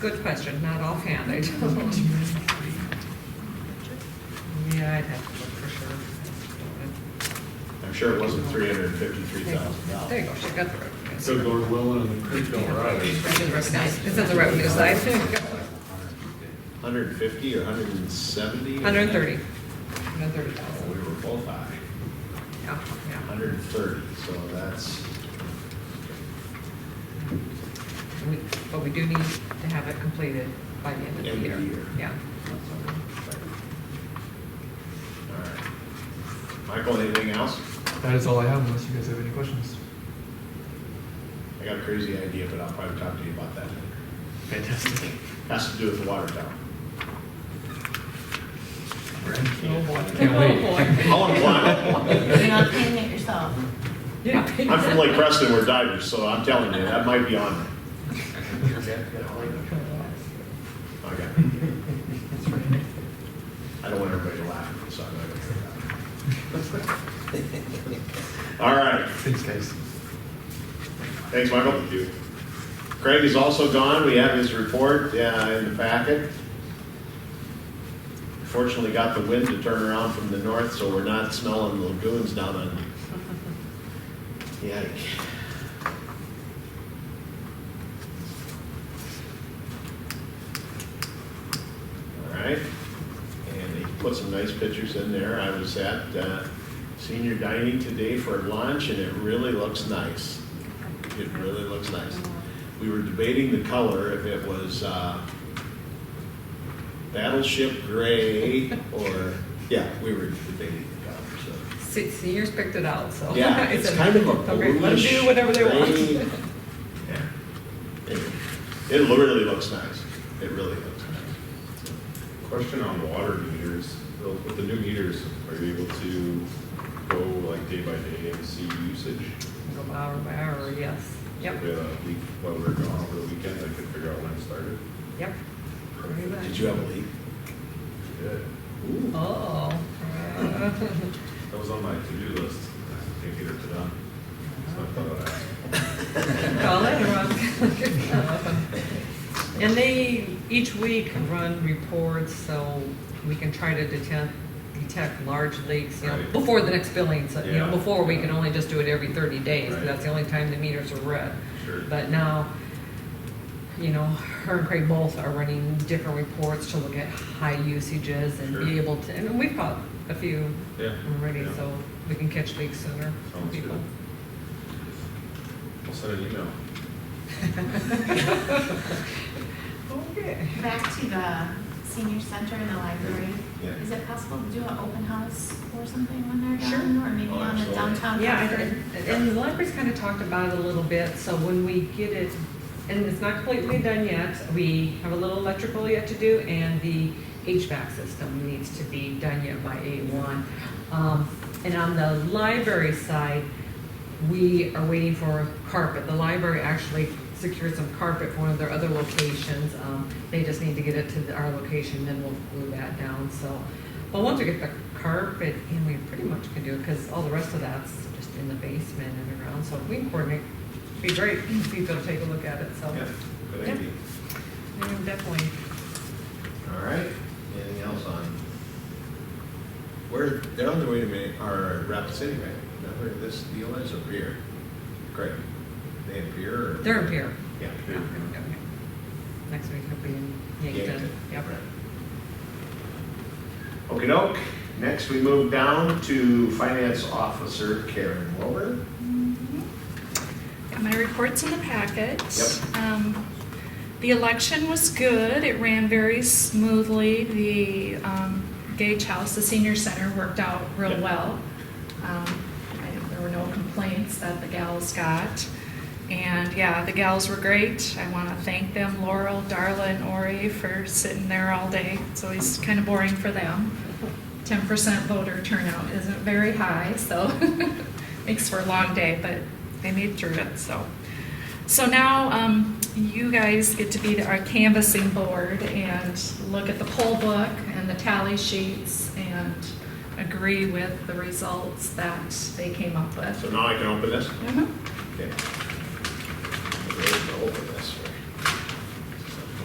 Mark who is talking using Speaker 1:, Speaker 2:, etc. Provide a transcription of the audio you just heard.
Speaker 1: good question, not offhand, I don't. Yeah, I'd have to look for sure.
Speaker 2: I'm sure it wasn't three hundred and fifty-three thousand
Speaker 1: There you
Speaker 2: dollars.
Speaker 1: go, she got the revenue.
Speaker 3: So Lord willing, and the creek don't rise.
Speaker 1: It's in the revenue- It's in the revenue side.
Speaker 2: Hundred and fifty or hundred and seventy?
Speaker 1: Hundred and thirty. Hundred and thirty thousand.
Speaker 2: We were both high,
Speaker 1: Yeah, yeah.
Speaker 2: hundred and thirty, so that's,
Speaker 1: And we- But we do need to have it completed by the end of the
Speaker 2: End
Speaker 1: year.
Speaker 2: of the year.
Speaker 1: Yeah.
Speaker 2: all right. Michael, anything else?
Speaker 3: That is all I have unless you guys have any questions.
Speaker 2: I got a crazy idea, but I'll probably talk to you about that later.
Speaker 3: Fantastic.
Speaker 2: Has to do with the water tower.
Speaker 1: Oh, boy.
Speaker 3: Can't
Speaker 1: Oh,
Speaker 3: wait.
Speaker 1: boy.
Speaker 2: All in one.
Speaker 4: You're not paying it yourself.
Speaker 1: You're not paying
Speaker 2: I'm from Lake
Speaker 1: that.
Speaker 2: Preston, we're divers, so I'm telling you, that might be on there. Okay. I don't want everybody to laugh, so I'm not gonna do that. All right,
Speaker 3: Thanks, guys.
Speaker 2: thanks, Michael. Craig is also gone, we have his report uh, in the packet. Fortunately, got the wind to turn around from the north, so we're not smelling lagoons down on. Yikes. All right, and he put some nice pictures in there. I was at uh, senior dining today for lunch, and it really looks nice. It really looks nice. We were debating the color, if it was uh, battleship gray, or, yeah, we were debating the color, so.
Speaker 1: Se- Seniors picked it out, so.
Speaker 2: Yeah, it's
Speaker 1: a-
Speaker 2: kind of a
Speaker 1: Oh. okay,
Speaker 2: bluish.
Speaker 1: Let them do whatever they
Speaker 2: gray.
Speaker 1: want.
Speaker 2: Yeah. Anyway, It really looks nice. It really looks nice.
Speaker 5: Question on water meters, Bill, with the new meters, are you able to go like day by day and see usage?
Speaker 1: Go by hour by hour, yes. Yep,
Speaker 5: If we had a leak while we were gone over the weekend, I could figure out when it started.
Speaker 1: yep. Pretty much.
Speaker 2: Did you have a leak?
Speaker 5: Good.
Speaker 2: Ooh.
Speaker 1: Oh.
Speaker 5: That was on my to-do list, I didn't get it done, so I thought I'd ask.
Speaker 1: Call it And they each week run reports, so we can try to detect, detect large leaks, you know,
Speaker 5: Right.
Speaker 1: before the next billing, so, you know,
Speaker 5: Yeah.
Speaker 1: before, we can only just do it every thirty days,
Speaker 5: Right.
Speaker 1: that's the only time the meters are read.
Speaker 5: Sure.
Speaker 1: But now, you know, her and Craig both are running different reports to look at high usages and be
Speaker 5: Sure.
Speaker 1: able to, and we've caught a few
Speaker 5: Yeah.
Speaker 1: already,
Speaker 5: yeah.
Speaker 1: so we can catch leaks sooner. for
Speaker 5: Sounds
Speaker 1: people.
Speaker 5: good. I'll send an email.
Speaker 1: Okay.
Speaker 4: Back to the senior center and the library.
Speaker 2: Yeah.
Speaker 4: Is it possible to do an open house or something when they're done?
Speaker 1: Sure.
Speaker 4: Or maybe
Speaker 2: Oh,
Speaker 4: on the
Speaker 2: absolutely.
Speaker 4: downtown?
Speaker 1: Yeah, I
Speaker 4: Concord?
Speaker 1: did. and the library's kind of talked about it a little bit, so when we get it, and it's not completely done yet, we have a little electrical yet to do, and the HVAC system needs to be done yet by eight one. Um, And on the library side, we are waiting for carpet. The library actually secured some carpet for one of their other locations. Um, They just need to get it to the- our location, then we'll glue that down, so. Well, once we get the carpet in, we pretty much can do it, because all the rest of that's just in the basement and around, so if we can coordinate, it'd be great if you go take a look at it, so.
Speaker 2: Yeah, good
Speaker 1: Yeah.
Speaker 2: idea.
Speaker 1: Yeah, Definitely.
Speaker 2: All right, anything else on? Where, they're on their way to Ma, or Rapid City, right? Is that where this deal is, up here? Great. They in Pier or?
Speaker 1: They're in here.
Speaker 2: Yeah.
Speaker 1: Yeah, okay, okay. Next week will be in Yankton. Yep.
Speaker 2: Okey doke, next we move down to Finance Officer Karen Wilbur.
Speaker 6: My report's in the packet.
Speaker 2: Yep.
Speaker 6: Um, The election was good. It ran very smoothly. The um, Gage House, the senior center, worked out real
Speaker 2: Yep.
Speaker 6: well. Um, I- There were no complaints that the gals got. And yeah, the gals were great. I want to thank them, Laurel, Darla, and Ori, for sitting there all day. It's always kind of boring for them. 10% voter turnout isn't very high, so makes for a long day, but they made through it, so. So now um, you guys get to be the- our canvassing board and look at the poll book and the tally sheets and agree with the results that they came up with.
Speaker 2: So now I can open this?
Speaker 6: Mhm.
Speaker 2: Okay. We're ready to open this